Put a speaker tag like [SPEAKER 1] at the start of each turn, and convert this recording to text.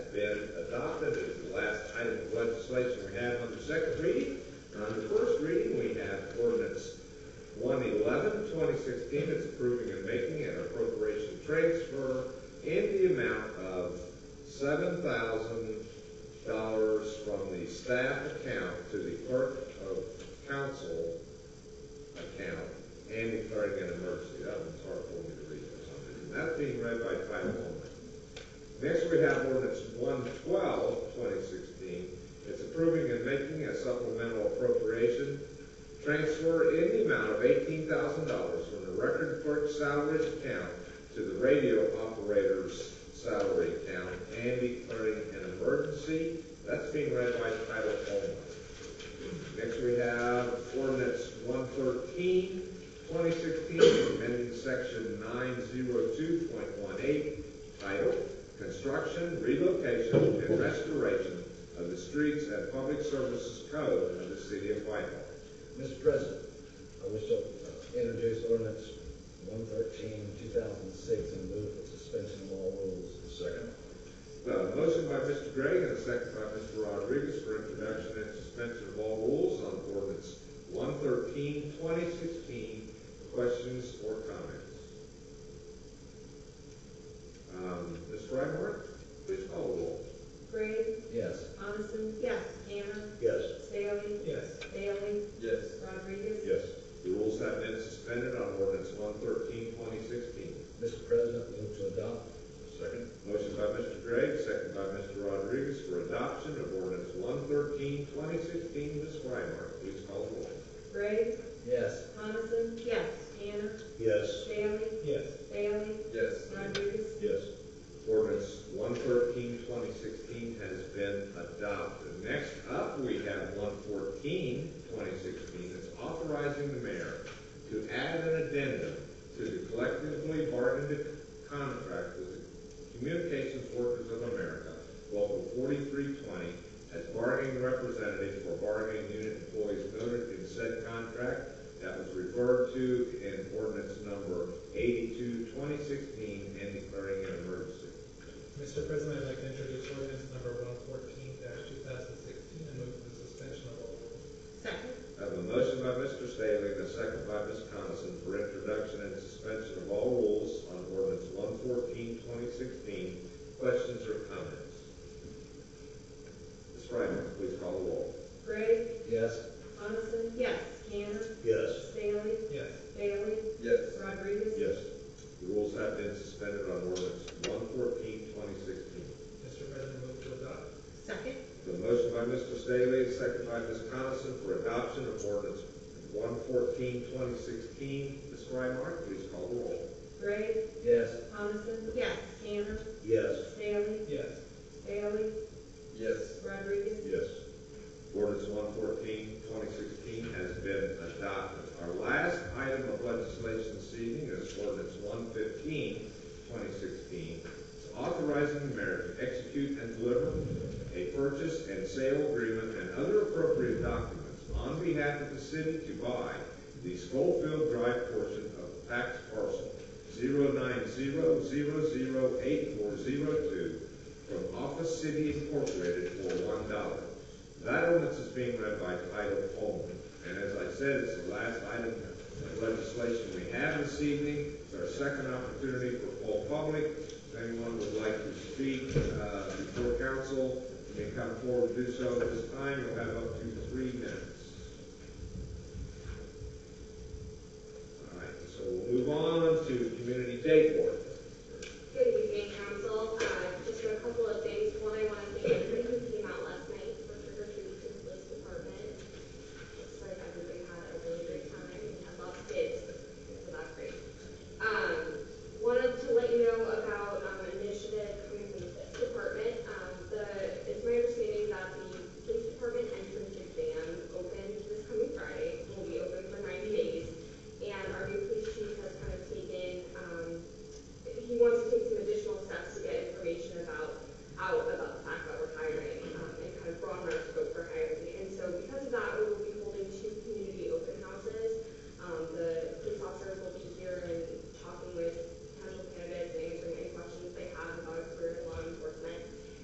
[SPEAKER 1] been adopted as the last item of legislation we have on the second reading. And on the first reading, we have ordinance 111, 2016, it's approving and making an appropriation transfer in the amount of $7,000 from the staff account to the clerk of council account and declaring an emergency. That one's hard for me to read for some reason. That's being read by title only. Next, we have ordinance 112, 2016. It's approving and making a supplemental appropriation transfer in the amount of $18,000 from the record clerk's salary account to the radio operator's salary account and declaring an emergency. That's being read by title only. Next, we have ordinance 113, 2016, amending section 902.18, title, Construction, Relocation, and Restoration of the Streets and Public Services Code of the City of Whitehall.
[SPEAKER 2] Mr. President, I wish to uh, introduce ordinance 113, 2006, and move for suspension of all rules. Second.
[SPEAKER 1] Uh, motion by Mr. Gregg and a second by Mr. Rodriguez for introduction and suspension of all rules on ordinance 113, 2016. Questions or comments? Um, Ms. Frymore, please call the roll.
[SPEAKER 3] Gray,
[SPEAKER 2] Yes.
[SPEAKER 3] Coniston. Yes. Tanner.
[SPEAKER 4] Yes.
[SPEAKER 3] Staley.
[SPEAKER 4] Yes.
[SPEAKER 3] Bailey.
[SPEAKER 4] Yes.
[SPEAKER 3] Rodriguez.
[SPEAKER 1] Yes. The rules have been suspended on ordinance 113, 2016.
[SPEAKER 2] Mr. President, move to adopt.
[SPEAKER 4] Second.
[SPEAKER 1] Motion by Mr. Gregg, second by Mr. Rodriguez for adoption of ordinance 113, 2016. Ms. Frymore, please call the roll.
[SPEAKER 3] Gray,
[SPEAKER 2] Yes.
[SPEAKER 3] Coniston. Yes. Tanner.
[SPEAKER 4] Yes.
[SPEAKER 3] Staley.
[SPEAKER 4] Yes.
[SPEAKER 3] Bailey.
[SPEAKER 4] Yes.
[SPEAKER 3] Rodriguez.
[SPEAKER 4] Yes.
[SPEAKER 1] Ordinance 113, 2016 has been adopted. Next up, we have 114, 2016. It's authorizing the mayor to add an addendum to the collectively bargained contract with the Communications Workers of America, Local 4320, as bargaining representative for bargaining unit employees noted in said contract that was referred to in ordinance number 82, 2016, and declaring an emergency.
[SPEAKER 5] Mr. President, I'd like to introduce ordinance number one fourteen two thousand sixteen and move for the suspension of all rules.
[SPEAKER 3] Second.
[SPEAKER 1] I have a motion by Mr. Staley and a second by Ms. Coniston for introduction and suspension of all rules on ordinance 114, 2016. Questions or comments? Ms. Frymark, please call the roll.
[SPEAKER 3] Gray,
[SPEAKER 2] Yes.
[SPEAKER 3] Coniston. Yes. Tanner.
[SPEAKER 4] Yes.
[SPEAKER 3] Staley.
[SPEAKER 5] Yes.
[SPEAKER 3] Bailey.
[SPEAKER 4] Yes.
[SPEAKER 3] Rodriguez.
[SPEAKER 1] Yes. The rules have been suspended on ordinance 114, 2016.
[SPEAKER 5] Mr. President, move to adopt.
[SPEAKER 3] Second.
[SPEAKER 1] The motion by Mr. Staley, and second by Ms. Coniston for adoption of ordinance 114, 2016. Ms. Frymark, please call the roll.
[SPEAKER 3] Gray,
[SPEAKER 2] Yes.
[SPEAKER 3] Coniston. Yes. Tanner.
[SPEAKER 4] Yes.
[SPEAKER 3] Staley.
[SPEAKER 5] Yes.
[SPEAKER 3] Bailey.
[SPEAKER 4] Yes.
[SPEAKER 3] Rodriguez.
[SPEAKER 4] Yes.
[SPEAKER 1] Ordinance 114, 2016 has been adopted. Our last item of legislation this evening is ordinance 115, 2016. It's authorizing the mayor to execute and deliver a purchase and sale agreement and other appropriate documents on behalf of the city to buy the Schofield Drive portion of tax parcel 090008402 from Office City Incorporated for $1. That ordinance is being read by title only, and as I said, it's the last item of legislation we have this evening. It's our second opportunity for full public. If anyone would like to speak uh, before council, you may come forward and do so at this time. You'll have up to three minutes.